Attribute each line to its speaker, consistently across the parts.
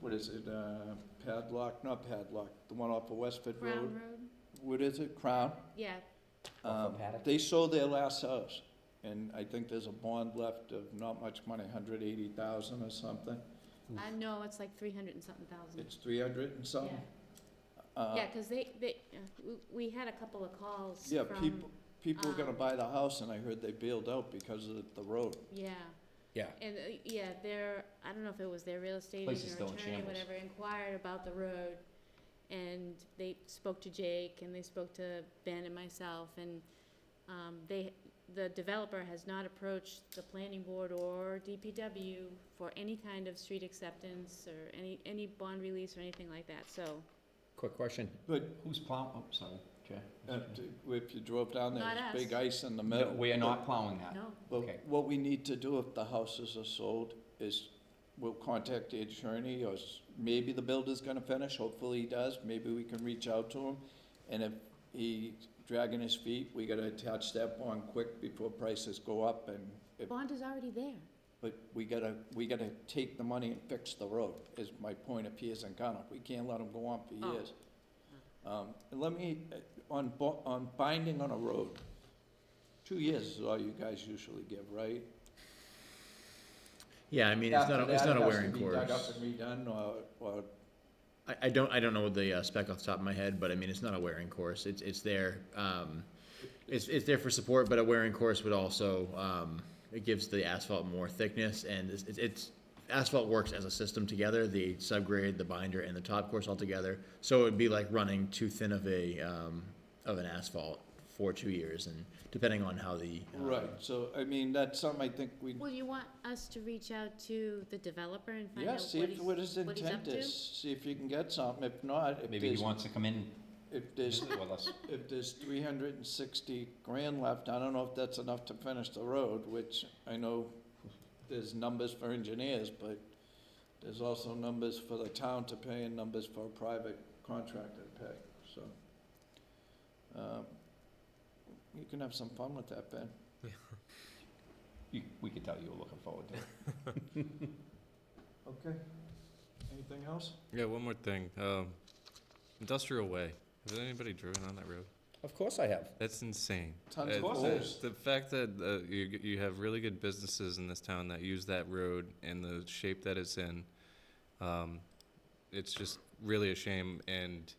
Speaker 1: what is it, uh, Padlock, not Padlock, the one off of Westford
Speaker 2: Brown
Speaker 1: Road?
Speaker 2: Road,
Speaker 1: What is it, Crown?
Speaker 2: yeah,
Speaker 3: Off of
Speaker 1: Um,
Speaker 3: Paddock?
Speaker 1: They sold their last house, and I think there's a bond left of not much money, hundred eighty thousand or something.
Speaker 2: Mm-hmm. I know, it's like three hundred and something thousand.
Speaker 1: It's three hundred and
Speaker 2: Yeah,
Speaker 1: something. Uh,
Speaker 2: yeah, cause they, they, uh, w- we had a couple of calls
Speaker 1: Yeah,
Speaker 2: from,
Speaker 1: people, people were gonna
Speaker 2: um,
Speaker 1: buy the house, and I heard they bailed out because of the road.
Speaker 2: yeah.
Speaker 3: Yeah.
Speaker 2: And, uh, yeah, their, I don't know if it was their real estate
Speaker 3: Place
Speaker 2: agent
Speaker 3: is still
Speaker 2: or
Speaker 3: in
Speaker 2: attorney,
Speaker 3: shambles.
Speaker 2: whatever, inquired about the road. And they spoke to Jake and they spoke to Ben and myself and, um, they, the developer has not approached the planning board or DPW for any kind of street acceptance or any, any bond release or anything like that, so.
Speaker 3: Quick question.
Speaker 1: But
Speaker 3: Who's plowing, oh, sorry, Jay.
Speaker 1: uh, if you drove down there,
Speaker 2: Not
Speaker 1: there's big
Speaker 2: us.
Speaker 1: ice in the
Speaker 3: Mm-hmm. No,
Speaker 1: middle.
Speaker 3: we are not plowing that.
Speaker 2: No,
Speaker 1: But
Speaker 3: Okay.
Speaker 1: what we need to do if the houses are sold is we'll contact the attorney or s- maybe the builder's gonna finish, hopefully he does, maybe we can reach out to him. And if he dragging his feet, we gotta attach that bond quick before prices go up and if,
Speaker 2: bond is already there.
Speaker 1: but we gotta, we gotta take the money and fix the road, is my point of Piers and Gunner. We can't let them go on for
Speaker 2: Oh.
Speaker 1: years. Um, and let me, uh, on bo- on binding on a road, two years is all you guys usually give, right?
Speaker 4: Yeah, I mean, it's not, a- it's not a wearing
Speaker 1: After that, it has
Speaker 4: course.
Speaker 1: to be dug up and redone, or, or,
Speaker 4: I, I don't, I don't know the uh, spec off the top of my head, but I mean, it's not a wearing course. It's, it's there, um, it's, it's there for support, but a wearing course would also, um, it gives the asphalt more thickness and it's, it's- it's, asphalt works as a system together, the subgrade, the binder and the top course all together. So it would be like running too thin of a, um, of an asphalt for two years and depending on how the. uh,
Speaker 1: right, so, I mean, that's something I think we,
Speaker 2: Well, you want us to reach out to the developer and find
Speaker 1: yeah,
Speaker 2: out
Speaker 1: see
Speaker 2: what
Speaker 1: if
Speaker 2: he's,
Speaker 1: what his
Speaker 2: what he's up
Speaker 1: intent
Speaker 2: to?
Speaker 1: is, see if you can get something, if not, if
Speaker 3: Maybe he
Speaker 1: there's,
Speaker 3: wants to come in and
Speaker 1: if there's,
Speaker 3: visit with us.
Speaker 1: if there's three hundred and sixty grand left, I don't know if that's enough to finish the road, which I know there's numbers for engineers, but there's also numbers for the town to pay and numbers for a private contractor to pay, so. um, You can have some fun with that, Ben.
Speaker 3: You, we could tell you were looking forward to it.
Speaker 1: Okay. Anything else?
Speaker 5: Yeah, one more thing. Um, industrial way. Has anybody driven on that road?
Speaker 3: Of course I have.
Speaker 5: That's insane.
Speaker 1: Tons of
Speaker 5: Uh,
Speaker 3: course
Speaker 5: the-
Speaker 3: it is.
Speaker 5: The fact that uh, you g- you have really good businesses in this town that use that road and the shape that it's in, um, it's just really a shame. And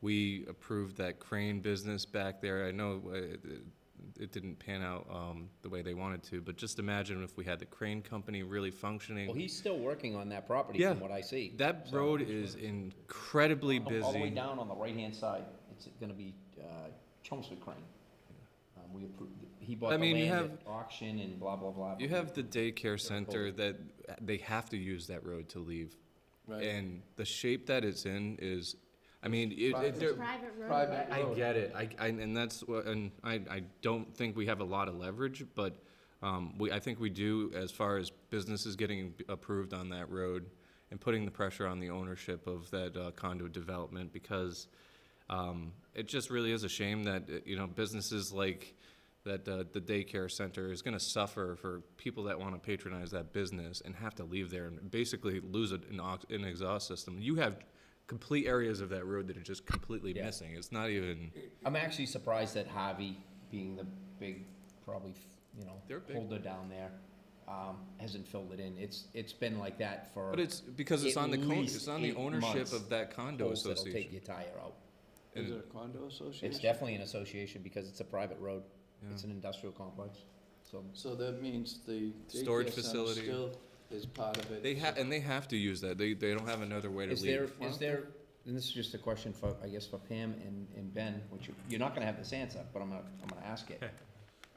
Speaker 5: we approved that crane business back there. I know uh, it, it didn't pan out um, the way they wanted to, but just imagine if we had the crane company really functioning.
Speaker 3: Well, he's still working on that property
Speaker 5: Yeah.
Speaker 3: from what I see.
Speaker 5: that
Speaker 3: So-
Speaker 5: road is incredibly
Speaker 3: All- All the way
Speaker 5: busy.
Speaker 3: down on the right-hand side, it's gonna be, uh, Chelmsford Crane. Um, we approved, he bought
Speaker 5: I
Speaker 3: the
Speaker 5: mean, you
Speaker 3: land at auction and blah, blah, blah.
Speaker 5: You have the daycare center
Speaker 3: cold.
Speaker 5: that they have to use that road to leave.
Speaker 1: Right.
Speaker 5: And the shape that it's in is, I mean, it,
Speaker 1: Private.
Speaker 5: it,
Speaker 2: It's
Speaker 5: they're-
Speaker 2: private road.
Speaker 1: Private
Speaker 5: I
Speaker 1: road.
Speaker 5: get it. I, I, and that's what, and I, I don't think we have a lot of leverage, but, um, we, I think we do as far as businesses getting approved on that road and putting the pressure on the ownership of that uh, condo development because, um, it just really is a shame that, uh, you know, businesses like that, uh, the daycare center is gonna suffer for people that wanna patronize that business and have to leave there and basically lose an, an ox- an exhaust system. You have complete areas of that road that are just completely
Speaker 3: Yeah.
Speaker 5: missing. It's not even.
Speaker 3: I'm actually surprised that Harvey, being the big, probably, f- you know,
Speaker 5: They're big.
Speaker 3: holder down there, um, hasn't filled it in. It's, it's been like that for.
Speaker 5: But it's because it's
Speaker 3: At
Speaker 5: on the con-
Speaker 3: least
Speaker 5: it's on the
Speaker 3: eight
Speaker 5: ownership
Speaker 3: months
Speaker 5: of that condo
Speaker 3: holes that'll Take
Speaker 5: association.
Speaker 3: your tire out.
Speaker 1: Is it a condo association?
Speaker 3: It's definitely an association because it's a private road. It's
Speaker 5: Yeah.
Speaker 3: an industrial complex, so.
Speaker 1: So that means the
Speaker 5: Storage
Speaker 1: daycare center
Speaker 5: facility.
Speaker 1: still is part of it.
Speaker 5: They ha-
Speaker 1: so-
Speaker 5: and they have to use that. They they don't have another way to
Speaker 3: Is there,
Speaker 5: leave.
Speaker 3: is there, and this is just a question for, I guess, for Pam and, and Ben, which you- you're not gonna have this answer, but I'm gonna, I'm gonna ask it.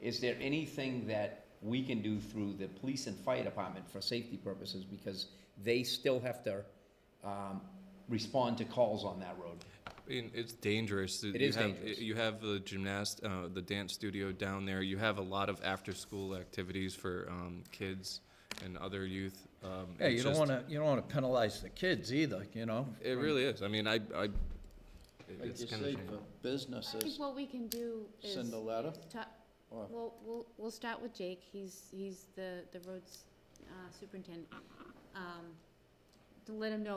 Speaker 3: Is there anything that we can do through the police and fire department for safety purposes, because they still have to, um, respond to calls on that road?
Speaker 5: I mean, it's dangerous.
Speaker 3: It
Speaker 5: you
Speaker 3: is
Speaker 5: have,
Speaker 3: dangerous.
Speaker 5: You have the gymnast, uh, the dance studio down there. You have a lot of after-school activities for um, kids and other youth. Um,
Speaker 1: Yeah,
Speaker 5: it's
Speaker 1: you don't
Speaker 5: just-
Speaker 1: wanna, you don't wanna penalize the kids either, you know?
Speaker 5: It really is. I mean, I, I it-
Speaker 1: Like
Speaker 5: it's
Speaker 1: you
Speaker 5: kind of
Speaker 1: say, for
Speaker 2: I think
Speaker 1: businesses,
Speaker 2: what we can do is,
Speaker 1: send a letter,
Speaker 2: ta-
Speaker 1: or,
Speaker 2: we'll, we'll, we'll start with Jake, he's, he's the, the roads uh, superintendent. Um, To let him know